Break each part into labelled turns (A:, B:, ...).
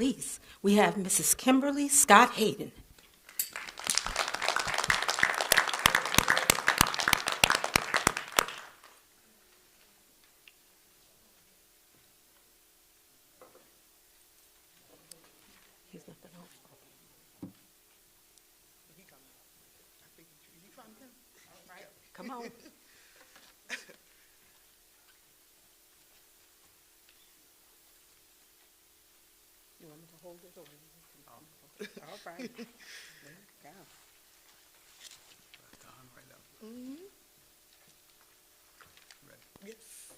A: Police, we have Mrs. Kimberly Scott Hayden. He's not gonna- Come on. You want me to hold it or? All right. There you go.
B: Left arm, right up. Ready.
C: Yes.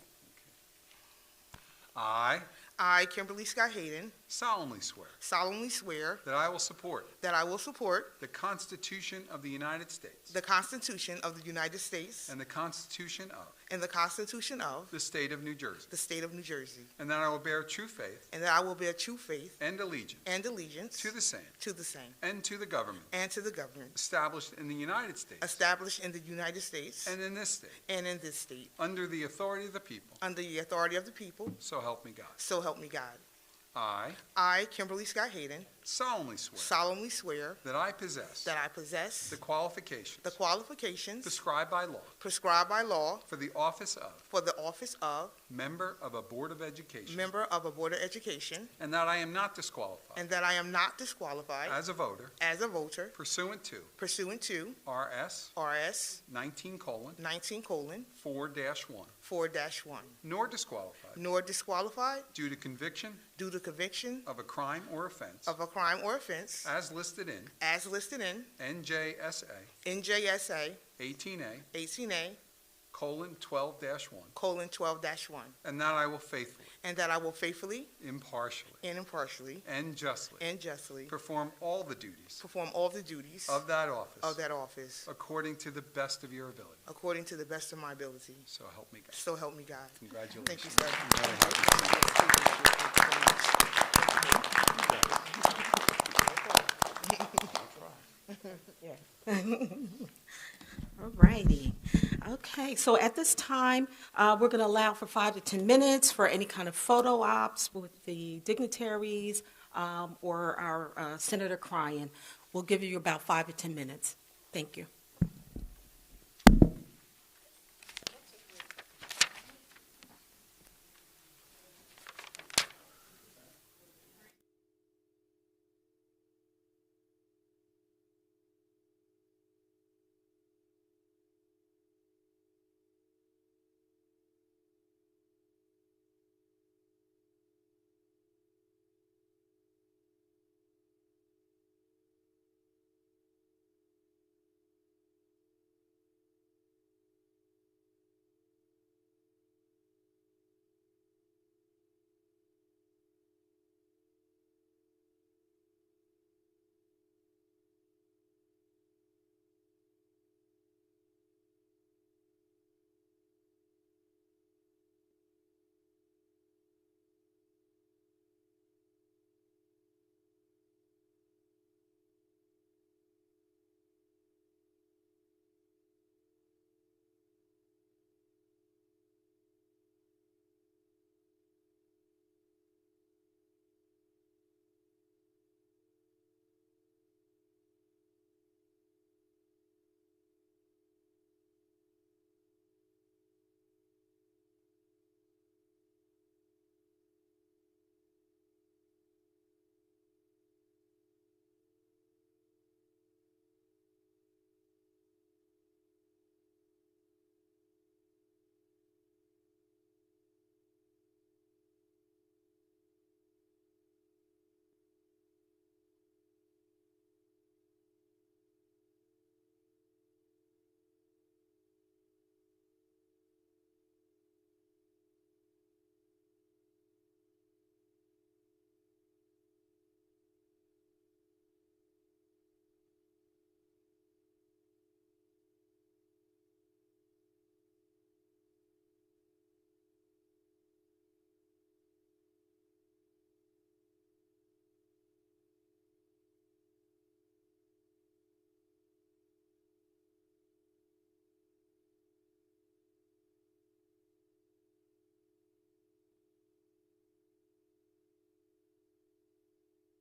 B: I
C: I, Kimberly Scott Hayden,
B: solemnly swear
C: solemnly swear
B: that I will support
C: that I will support
B: the Constitution of the United States
C: the Constitution of the United States
B: and the Constitution of
C: and the Constitution of
B: the State of New Jersey,
C: the State of New Jersey,
B: and that I will bear true faith
C: and that I will bear true faith
B: and allegiance
C: and allegiance
B: to the same
C: to the same
B: and to the government
C: and to the government
B: established in the United States
C: established in the United States
B: and in this state
C: and in this state,
B: under the authority of the people,
C: under the authority of the people,
B: so help me God.
C: so help me God.
B: I
C: I, Kimberly Scott Hayden,
B: solemnly swear
C: solemnly swear
B: that I possess
C: that I possess
B: the qualifications
C: the qualifications
B: prescribed by law
C: prescribed by law
B: for the office of
C: for the office of
B: member of a Board of Education
C: member of a Board of Education
B: And that I am not disqualified
C: And that I am not disqualified
B: as a voter
C: as a voter
B: pursuant to
C: pursuant to
B: RS
C: RS
B: 19 colon
C: 19 colon
B: 4 dash 1,
C: 4 1,
B: nor disqualified
C: nor disqualified
B: due to conviction
C: due to conviction
B: of a crime or offense
C: of a crime or offense
B: as listed in
C: as listed in
B: NJSA
C: NJSA
B: 18A
C: 18A
B: colon 12 dash 1,
C: colon 12 1,
B: and that I will faithfully,
C: and that I will faithfully
B: impartially,
C: and impartially
B: and justly
C: and justly
B: perform all the duties
C: perform all the duties
B: of that
C: of
B: office
C: that office
B: according to the best of your ability.
C: according to the best of my ability.
B: So help me God.
C: So help me God. Thank you,
B: Congratulations.
C: sir.
B: Very happy for you.
C: Thank you so much.
A: All righty. Okay, so at this time, uh, we're going to allow for five to 10 minutes for any kind of photo ops with the dignitaries um, or our uh, Senator Cryan. We'll give you about five to 10 minutes. Thank you.